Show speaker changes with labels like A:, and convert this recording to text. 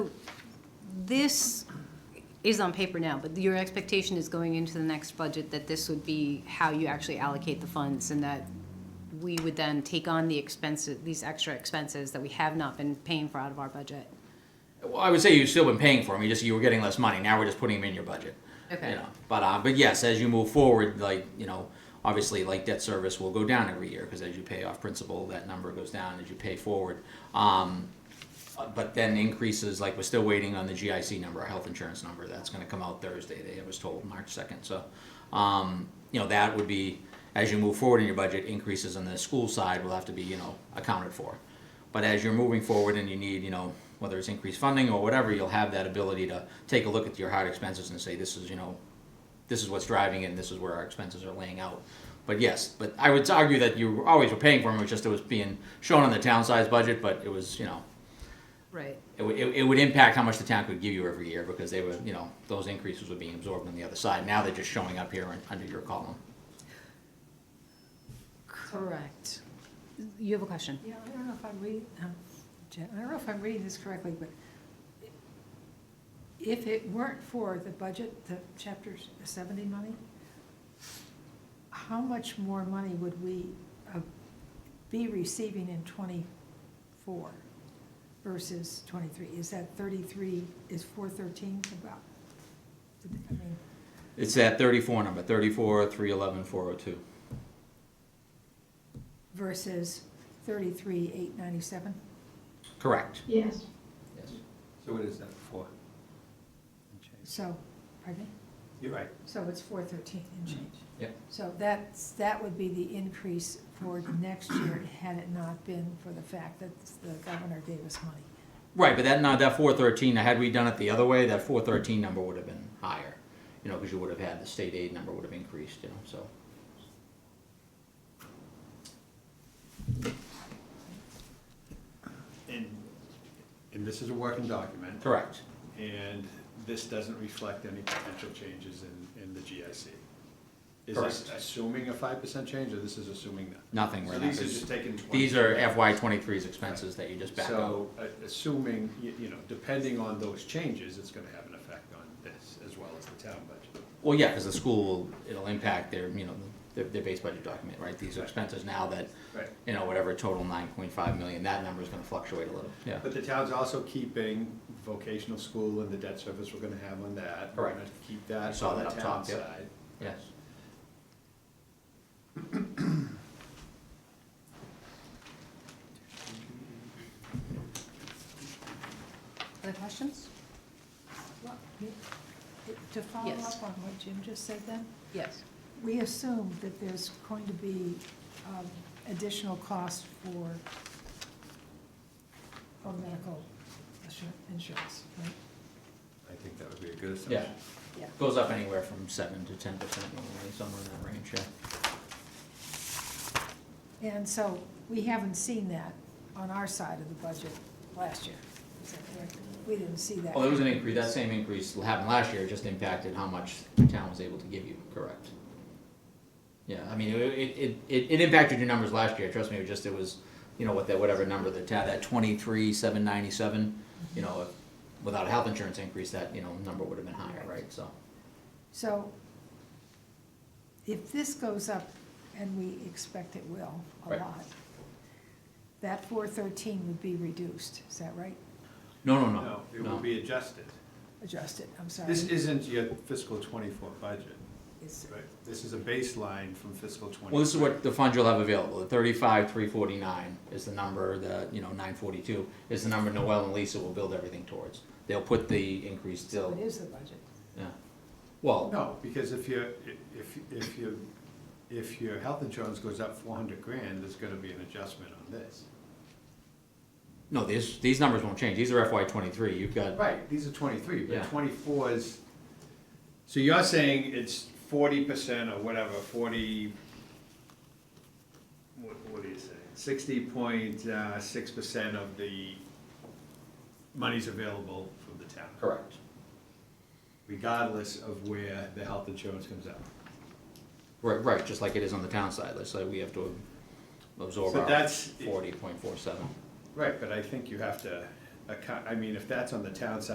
A: this is on paper now, but your expectation is going into the next budget that this would be how you actually allocate the funds and that we would then take on the expenses, these extra expenses that we have not been paying for out of our budget.
B: Well, I would say you've still been paying for them. You just you were getting less money. Now we're just putting them in your budget.
A: Okay.
B: You know, but uh, but yes, as you move forward, like you know, obviously, like debt service will go down every year because as you pay off principal, that number goes down as you pay forward. Um, uh, but then increases like we're still waiting on the GIC number, our health insurance number. That's going to come out Thursday. They I was told March second. So, um, you know, that would be as you move forward in your budget, increases on the school side will have to be you know accounted for. But as you're moving forward and you need, you know, whether it's increased funding or whatever, you'll have that ability to take a look at your hard expenses and say, this is, you know, this is what's driving it and this is where our expenses are laying out. But yes, but I would argue that you always were paying for them, it was just it was being shown on the town size budget, but it was, you know,
A: Right.
B: it, would- it, it would impact how much the town could give you every year because they were, you know, those increases were being absorbed on the other side. Now they're just showing up here in- under your column.
A: Correct. You have a question?
C: Yeah, I don't know if I'm reading, um, I don't know if I'm reading this correctly, but if it weren't for the budget, the chapter seventy money, how much more money would we uh, be receiving in twenty-four versus twenty-three? Is that thirty-three, is four thirteen about? I mean,
B: It's that thirty-four number, thirty-four, three eleven, four oh two.
C: Versus thirty-three, eight ninety-seven?
B: Correct.
D: Yes,
B: Yes.
E: So what is that for?
C: So, pardon me?
E: You're right.
C: So it's four thirteen and change?
B: Yep.
C: So that's, that would be the increase for next year had it not been for the fact that the governor gave us money.
B: Right, but that not that four thirteen. Had we done it the other way, that four thirteen number would have been higher, you know, because you would have had the state aid number would have increased, you know. So
E: And, and this is a working document.
B: correct,
E: And this doesn't reflect any potential changes in, in the GIC. Is this
B: Correct.
E: assuming a five percent change, or this is assuming that?
B: nothing
E: So
B: right now.
E: these are
B: This-
E: just taking.
B: These are FY 23s expenses that you just back
E: So, a- assuming, you, you know, depending on those changes, it's gonna have an effect on this as well as the town budget.
B: up. Well, yeah, because the school will, it'll impact their, you know, their, their base budget document, right? These are
E: Right.
B: expenses now that,
E: Right.
B: you know, whatever total nine point five million, that number is going to fluctuate a little. Yeah.
E: But the town's also keeping vocational school and the debt service we're gonna have on that. We're
B: Correct.
E: gonna Keep
B: I
E: that
B: saw
E: on the
B: that up
E: town
B: top, yep.
E: side.
B: Yes.
A: Other questions?
C: Well, you- To follow
A: Yes.
C: up on what Jim just said then,
A: Yes.
C: we assume that there's going to be um, additional cost for, for medical assur- insurance, right?
E: I think that would be a good
B: Yeah.
E: assumption.
C: Yeah.
B: Goes up anywhere from seven to ten percent normally, somewhere in that range. Yeah.
C: And so we haven't seen that on our side of the budget last year. Is that correct? We didn't see that.
B: Well, there was an increase, that same increase happened last year, it just impacted how much the town was able to give you, correct? Yeah, I mean, it, it, it, it impacted your numbers last year, trust me, it just, it was, you know, with that, whatever number the town, that twenty-three, seven ninety-seven, you know, if- without a health insurance increase, that, you know, number would have been higher, right, so.
C: So if this goes up, and we expect it will a
B: Right.
C: lot, that four thirteen would be reduced, is that right?
B: No, no,
E: No,
B: no,
E: it will
B: no,
E: be adjusted.
C: Adjusted, I'm sorry.
E: This isn't your fiscal twenty-four budget,
C: It's-
E: right? This is a baseline from fiscal twenty.
B: well, this is what the fund you'll have available, the thirty-five, three forty-nine is the number, the, you know, nine forty-two is the number Noel and Lisa will build everything towards. They'll put the increase
C: So it
B: still,
C: is the budget.
B: yeah, well.
E: No, because if your, if, if your, if your health insurance goes up four hundred grand, there's gonna be an adjustment on this.
B: No, these, these numbers won't change. These are FY twenty-three. You've got,
E: Right, these are twenty-three,
B: Yeah.
E: but twenty-four is, so you're saying it's forty percent or whatever, forty, what, what do you say? Sixty point, uh, six percent of the money's available from the town.
B: correct.
E: regardless of where the health insurance comes out.
B: Right, right, just like it is on the town side. Let's say we have to absorb
E: So
B: our
E: that's-
B: forty point four seven.
E: Right, but I think you have to, account- I mean, if that's on the town side,